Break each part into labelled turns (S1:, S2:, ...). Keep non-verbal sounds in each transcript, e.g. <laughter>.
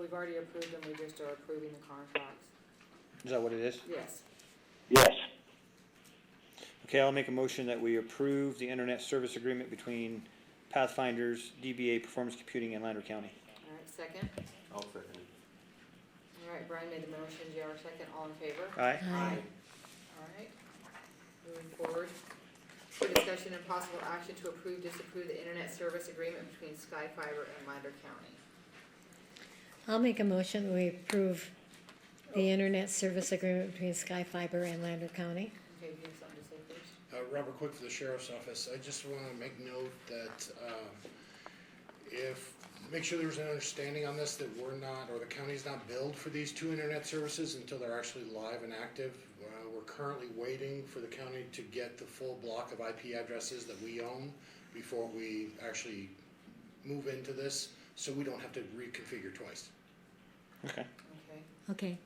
S1: we've already approved them, we just are approving the contracts.
S2: Is that what it is?
S1: Yes.
S3: Yes,
S2: Okay, I'll make a motion that we approve the internet service agreement between Pathfinders, DBA Performance Computing, and Lander County.
S1: All right, second.
S4: I'll second it.
S1: All right, Brian made the motion, JR second, all in favor?
S2: Aye?
S1: Aye. All right, moving forward. For discussion and possible action to approve, disapprove the internet service agreement between Sky Fiber and Lander County.
S5: I'll make a motion, we approve the internet service agreement between Sky Fiber and Lander County.
S1: Okay, do you have something to say, please?
S6: Uh, Robert Quick for the Sheriff's Office. I just want to make note that um, if, make sure there's an understanding on this that we're not, or the county's not billed for these two internet services until they're actually live and active. Uh, We're currently waiting for the county to get the full block of IP addresses that we own before we actually move into this, so we don't have to reconfigure twice.
S2: Okay,
S1: Okay,
S5: Okay,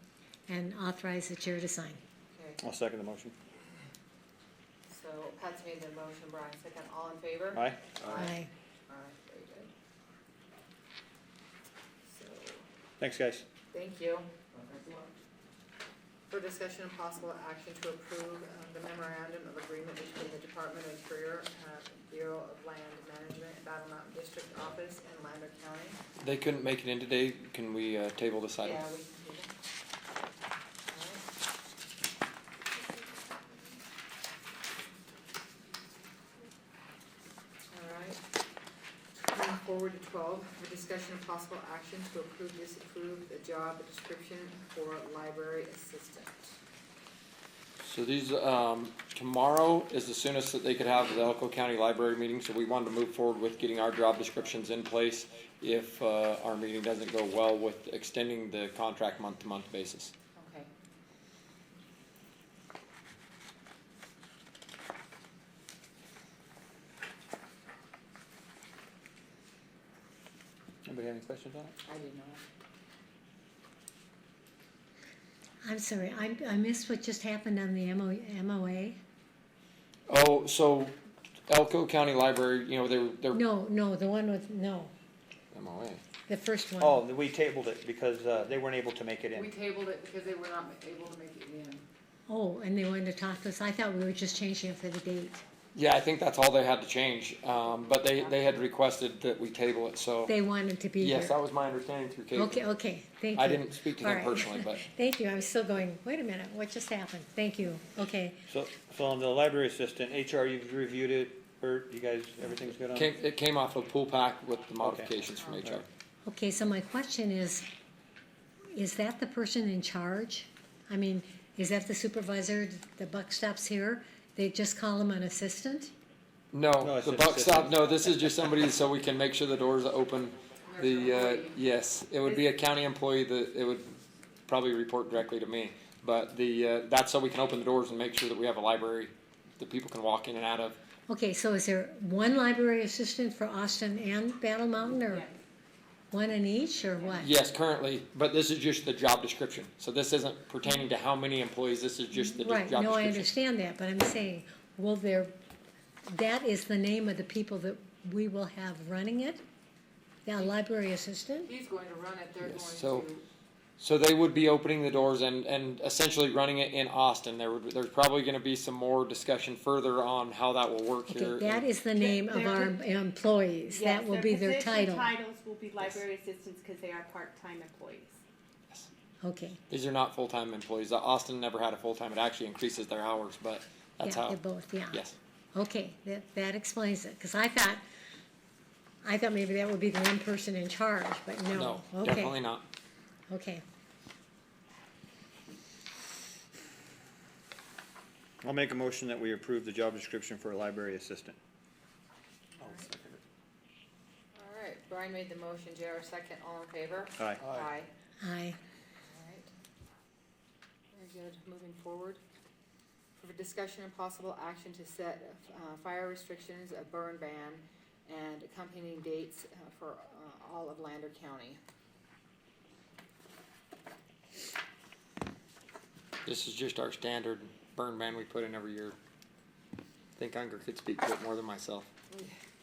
S5: and authorize the chair to sign.
S1: okay.
S2: I'll second the motion.
S1: So Pat's made the motion, Brian second, all in favor?
S2: Aye?
S5: Aye.
S1: All right, very good. So,
S2: Thanks, guys.
S1: thank you. For discussion and possible action to approve uh, the memorandum of agreement between the Department of Interior, uh, Bureau of Land Management, and Battle Mountain District Office and Lander County.
S7: They couldn't make it in today. Can we uh, table this item?
S1: Yeah, we can do that. All right. All right. Moving forward to twelve, for discussion of possible action to approve, disapprove the job description for library assistant.
S7: So these, um, tomorrow is the soonest that they could have the Elko County Library meeting, so we wanted to move forward with getting our job descriptions in place if, uh, our meeting doesn't go well with extending the contract month-to-month basis.
S1: Okay.
S2: Anybody have any questions on it?
S1: I didn't know.
S5: I'm sorry, I, I missed what just happened on the MO, MOA.
S7: Oh, so Elko County Library, you know, they're, they're
S5: No, no, the one with, no,
S7: MOA.
S5: the first one.
S2: Oh, we tabled it because uh, they weren't able to make it
S1: We
S2: in.
S1: tabled it because they were not able to make it in.
S5: Oh, and they wanted to talk to us. I thought we were just changing it for the date.
S7: Yeah, I think that's all they had to change, um, but they, they had requested that we table it, so.
S5: They wanted to be here.
S7: Yes, that was my understanding through Caitlin.
S5: Okay, okay, thank you.
S7: I didn't speak to
S5: All
S7: them
S5: right.
S7: personally, but.
S5: <laughs> Thank you, I was still going, wait a minute, what just happened? Thank you, okay.
S2: So, so on the library assistant, HR, you've reviewed it, Bert, you guys, everything's good on
S7: Came,
S2: it?
S7: it came off of pool pack with the modifications from
S2: Alright.
S7: HR.
S5: Okay, so my question is, is that the person in charge? I mean, is that the supervisor, the buck stops here? They just call him an assistant?
S2: No,
S7: No,
S2: it's
S7: the
S2: an
S7: buck stop,
S2: assistant.
S7: no, this is just somebody so we can make sure the doors are open. The, uh, yes, it would be a county employee that, it would probably report directly to me. But the, uh, that's so we can open the doors and make sure that we have a library that people can walk in and out of.
S5: Okay, so is there one library assistant for Austin and Battle Mountain, or one in each, or what?
S7: Yes, currently, but this is just the job description. So this isn't pertaining to how many employees, this is just the job
S5: Right, no, I
S7: description.
S5: understand that, but I'm saying, will there, that is the name of the people that we will have running it? That library assistant?
S1: He's going to run it, they're
S7: Yes,
S1: going
S7: so-
S1: to.
S7: So they would be opening the doors and, and essentially running it in Austin. There would, there's probably gonna be some more discussion further on how that will work
S5: Okay,
S7: here.
S5: that is the name of our employees, that
S8: Yes,
S5: will be their
S8: position
S5: title.
S8: Titles will be library assistants because they are part-time employees.
S5: Okay,
S7: These are not full-time employees. Uh, Austin never had a full-time. It actually increases their hours, but
S5: yeah,
S7: that's how.
S5: they're both, yeah.
S7: Yes.
S5: Okay, that, that explains it, because I thought, I thought maybe that would be the one person in charge, but
S7: No,
S5: no,
S7: definitely
S5: okay,
S7: not.
S5: okay.
S2: I'll make a motion that we approve the job description for a library assistant.
S4: I'll second it.
S1: All right, Brian made the motion, JR second, all in favor?
S2: Aye.
S1: Aye.
S5: Aye.
S1: Alright. Very good, moving forward. For discussion and possible action to set, uh, fire restrictions, a burn ban, and accompanying dates uh, for, uh, all of Lander County.
S7: This is just our standard burn ban we put in every year. I think Unger could speak to it more than myself.